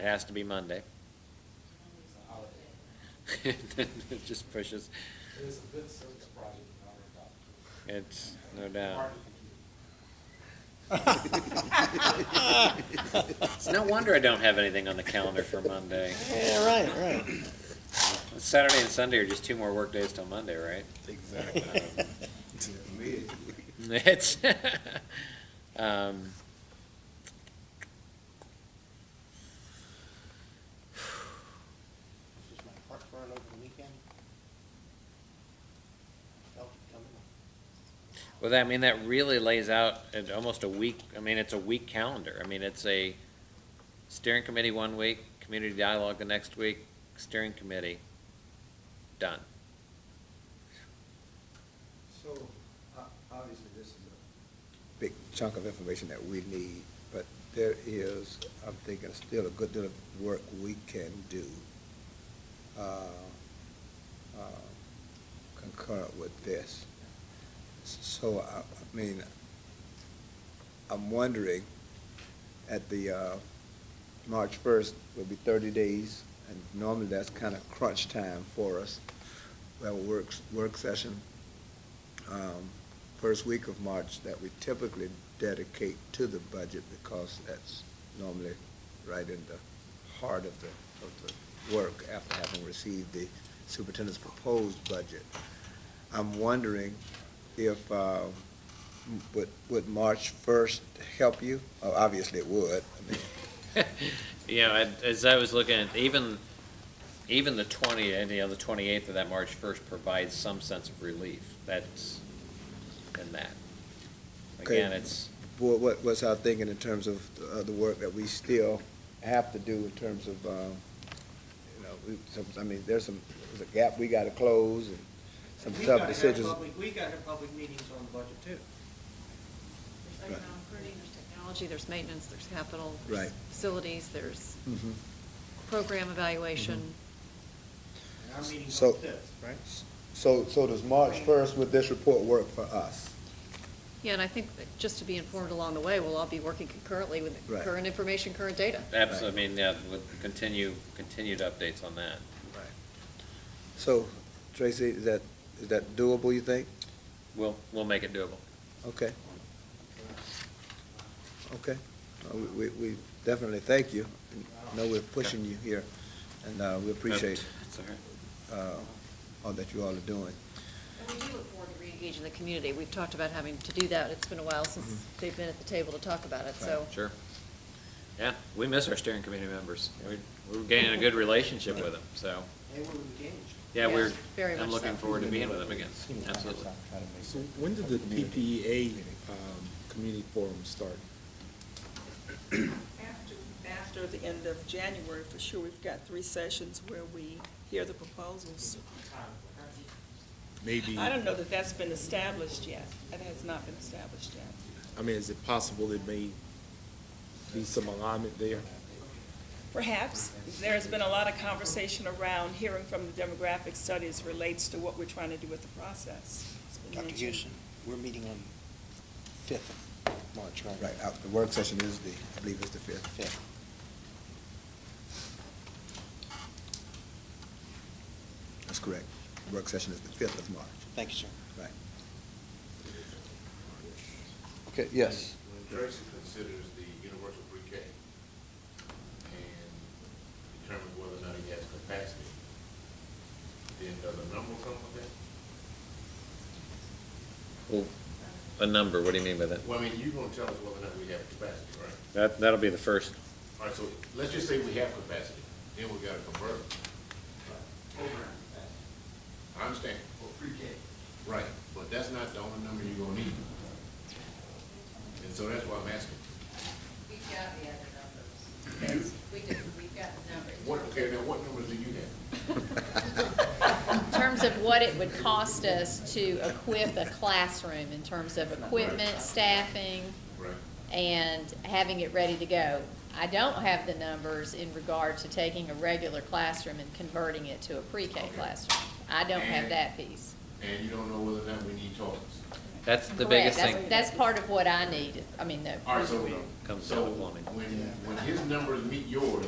It has to be Monday. It just pushes, It is a good service project, not a problem. it's no doubt. Hard to compute. It's no wonder I don't have anything on the calendar for Monday. Yeah, right, right. Saturday and Sunday are just two more work days till Monday, right? It's, um, Just my heart burned over the weekend. Felt it coming. well, that, I mean, that really lays out at almost a week, I mean, it's a week calendar. I mean, it's a steering committee one week, community dialogue the next week, steering committee, done. So, o- obviously, this is a big chunk of information that we need, but there is, I'm thinking, still a good deal of work we can do uh, uh, concurrent with this. S- So, I I mean, I'm wondering, at the, uh, March first will be thirty days, and normally that's kind of crunch time for us. We have a works, work session, um, first week of March that we typically dedicate to the budget because that's normally right in the heart of the, of the work after having received the superintendent's proposed budget. I'm wondering if, uh, m- would, would March first help you? Oh, obviously it would. I mean, You know, and as I was looking at, even, even the twenty, and, you know, the twenty-eighth of that March first provides some sense of relief, that's in that. Okay. Again, it's, What, what, what's our thinking in terms of, uh, the work that we still have to do in terms of, uh, you know, we, some, I mean, there's some, there's a gap we gotta close and some We've tough gotta have decisions. public- We gotta have public meetings on the budget too. There's economic pruning, there's technology, there's maintenance, there's capital. there's Right. Facilities, there's Mhm. program evaluation. Mm-hmm. And our meeting's So- on the fifth, right? So, so does March first, would this report work for us? Yeah, and I think that just to be informed along the way, we'll all be working concurrently with Right. current information, current data. absolutely, I mean, yeah, with continue, continued updates on that. Right. So, Tracy, is that, is that doable, you think? We'll, we'll make it doable. Okay. Okay. Uh, we- We, we definitely thank you. No, we're pushing you here, and, uh, we appreciate, That's all right. uh, all that you all are doing. And we do look forward to reengaging the community. We've talked about having to do that. It's been a while since Mm-hmm. they've been at the table to talk about it, so. Sure. Yeah, we miss our steering committee members. We, we're gaining a good relationship with them, so, They were engaged. yeah, Yes, we're, very I'm much looking so. forward to being with them again, absolutely. So when did the PPEA um, community forum start? After, after the end of January, for sure, we've got three sessions where we hear the proposals. Maybe, I don't know that that's been established yet. That has not been established yet. I mean, is it possible there may be some alignment there? Perhaps, there's been a lot of conversation around hearing from the demographic studies relates to what we're trying to do with the process. It's been Dr. mentioned. Houston, we're meeting on fifth of March, right? Right, uh, the work session is the, I believe it's the fifth. Fifth. That's correct. Work session is the fifth of March, Thank you, sir. right. Okay, yes. Tracy considers the universal pre-K and determines whether or not he has capacity, then does a number come with that? Well, A number, what do you mean by that? Well, I mean, you're gonna tell us whether or not we have capacity, right? That, that'll be the first. All right, so let's just say we have capacity, then we gotta convert it. Program. I understand. Well, pre-K. Right. But that's not the only number you're gonna need. And so that's why I'm asking. We've got the other numbers. We do, we've got the numbers. What, okay, now what numbers do you have? In terms of what it would cost us to equip a classroom, in terms of equipment, staffing, Right. and having it ready to go. I don't have the numbers in regard to taking a regular classroom and converting it to a pre-K classroom. I don't have that piece. And you don't know whether or not we need toilets. That's the Correct. biggest That's- thing. That's part of what I need, I mean, the All right, so, Comes so down to plumbing. when, when his numbers meet yours,